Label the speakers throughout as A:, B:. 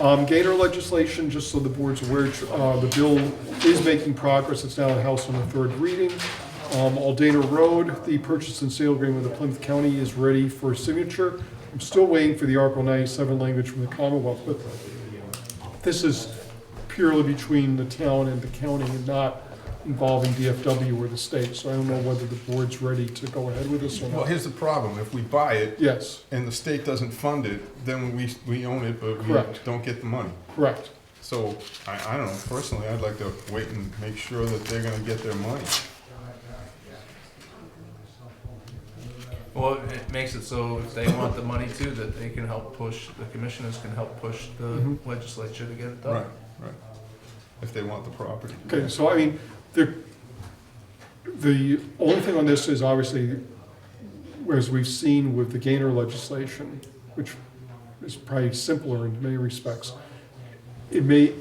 A: Um, Gator legislation, just so the board's aware, uh, the bill is making progress. It's now in the House on the third reading. Um, Aldana Road, the purchase and sale agreement with Plymouth County is ready for signature. I'm still waiting for the Article 97 language from the Commonwealth, but this is purely between the town and the county and not involving DFW or the state. So I don't know whether the board's ready to go ahead with this or
B: Well,
A: not.
B: here's the problem, if we buy it
A: Yes,
B: and the state doesn't fund it, then we, we own it, but we
A: Correct.
B: don't get the money.
A: correct.
B: So, I, I don't know, personally, I'd like to wait and make sure that they're gonna get their money.
C: Well, it makes it so if they want the money too, that they can help push, the commissioners can help push the
B: Mm-hmm.
A: Mhm.
C: legislature to get it
B: Right,
C: done.
B: right. If they want the property.
A: Okay, so I mean, the, the only thing on this is obviously, whereas we've seen with the Gainer legislation, which is probably simpler in many respects, it may,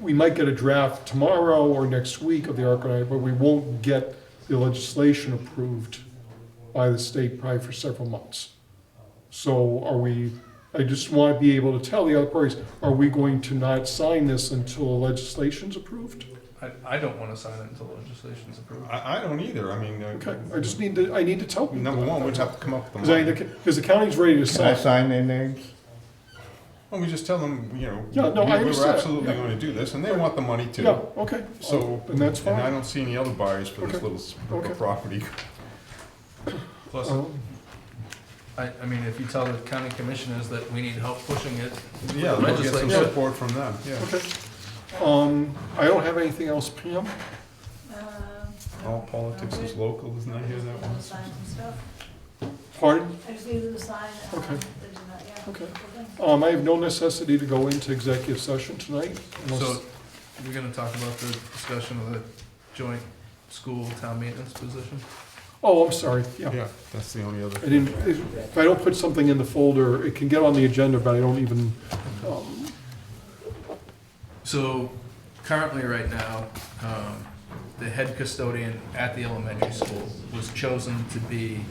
A: we might get a draft tomorrow or next week of the ARCA, but we won't get the legislation approved by the state probably for several months. So are we, I just want to be able to tell the other parties, are we going to not sign this until the legislation's approved?
C: I, I don't wanna sign it until legislation's approved.
B: I, I don't either, I mean,
A: Okay,
B: uh,
A: I just need to, I need to tell people.
B: number one, we'd have to come up with
A: Because
B: the
A: I,
B: money.
A: because the county's ready to
D: Can I
A: sign.
D: sign their names?
B: Well, we just tell them, you know,
A: Yeah, no, I
B: we- we were
A: understand.
B: absolutely
A: Yeah.
B: gonna do this, and they want the money too.
A: Yeah, okay. Oh,
B: So,
A: And that's
B: and I
A: fine.
B: don't see any other buyers for this
A: Okay.
B: little s-
A: Okay.
B: property.
C: Plus,
A: Um,
C: I, I mean, if you tell the county commissioners that we need help pushing it,
B: Yeah, we'll get some
C: Legislature.
B: support from them, yeah.
A: Oh, Okay. Um, I don't have anything else, Pam.
B: All politics is local, isn't that here that once?
E: Sign some stuff.
A: Pardon?
E: I just needed to sign. uh,
A: Okay.
E: the- yeah.
A: Okay.
E: Okay.
A: Um, I have no necessity to go into executive session tonight. unless-
C: so we're gonna talk about the discussion of the joint school town maintenance position.
A: Oh, I'm sorry, yeah.
B: Yeah, that's the only other.
A: I didn't, if I don't put something in the folder, it can get on the agenda, but I don't even, um,
C: So currently, right now, um, the head custodian at the elementary school was chosen to be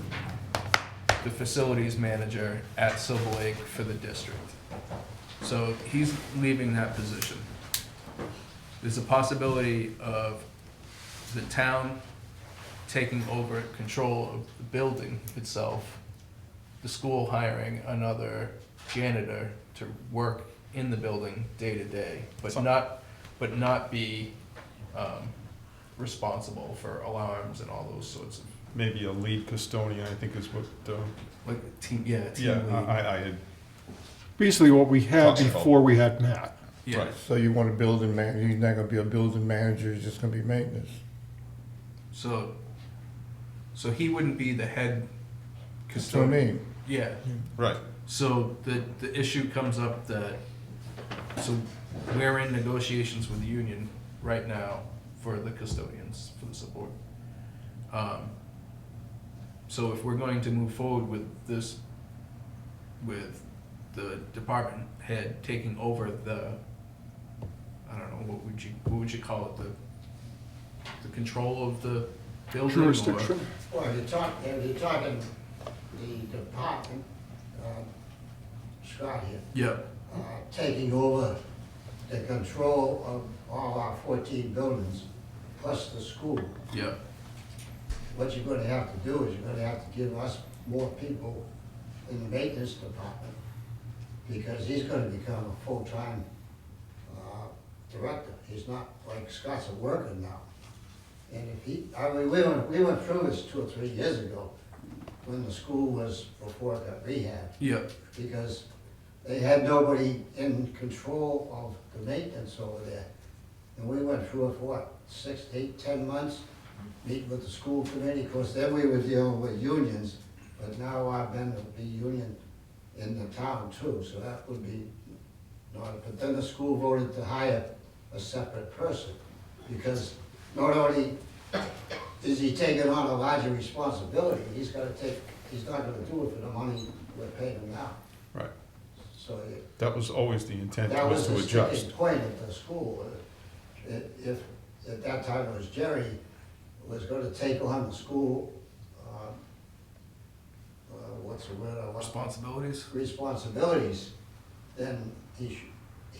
C: the facilities manager at Silver Lake for the district. So he's leaving that position. There's a possibility of the town taking over control of the building itself, the school hiring another janitor to work in the building day to day, but not, but not be um, responsible for alarms and all those sorts of,
B: Maybe a lead custodian, I think is what, uh,
C: like, team, yeah, team
B: yeah, I,
C: lead.
B: I- I had,
A: basically what we had
B: Possible.
A: before we had Matt.
C: Yeah,
B: right.
D: So you want a building manager, he's not gonna be a building manager, he's just gonna be maintenance.
C: so, so he wouldn't be the head
D: That's what I
C: custodian.
D: mean.
C: Yeah,
B: right,
C: so the, the issue comes up that, so we're in negotiations with the union right now for the custodians, for the support. Um, So if we're going to move forward with this, with the department head taking over the, I don't know, what would you, what would you call it, the, the control of the building? or-
A: Jurisdiction,
F: Well, if you're talking, if you're talking the department, um, Scott here,
C: Yeah,
F: uh, taking over the control of all our fourteen buildings, plus the school,
C: yeah,
F: what you're gonna have to do is you're gonna have to give us more people in the maintenance department, because he's gonna become a full-time, uh, director. He's not, like Scott's a worker now. And if he, I mean, we went, we went through this two or three years ago, when the school was, before it got rehabbed
C: yeah,
F: because they had nobody in control of the maintenance over there. And we went through it, for what, six, eight, ten months, meeting with the school committee, because then we were dealing with unions, but now I've been to be union in the town too, so that would be not, but then the school voted to hire a separate person, because not only is he taking on a larger responsibility, he's gotta take, he's not gonna do it for the money we're paying him now.
B: right.
F: So it-
B: That was always the intent,
F: that
B: was
F: was
B: to
F: the sticking
B: adjust.
F: point at the school. uh, i- If, at that time it was Jerry, was gonna take on the school, uh, uh, what's the word? I want?
C: responsibilities,
F: responsibilities, then he should,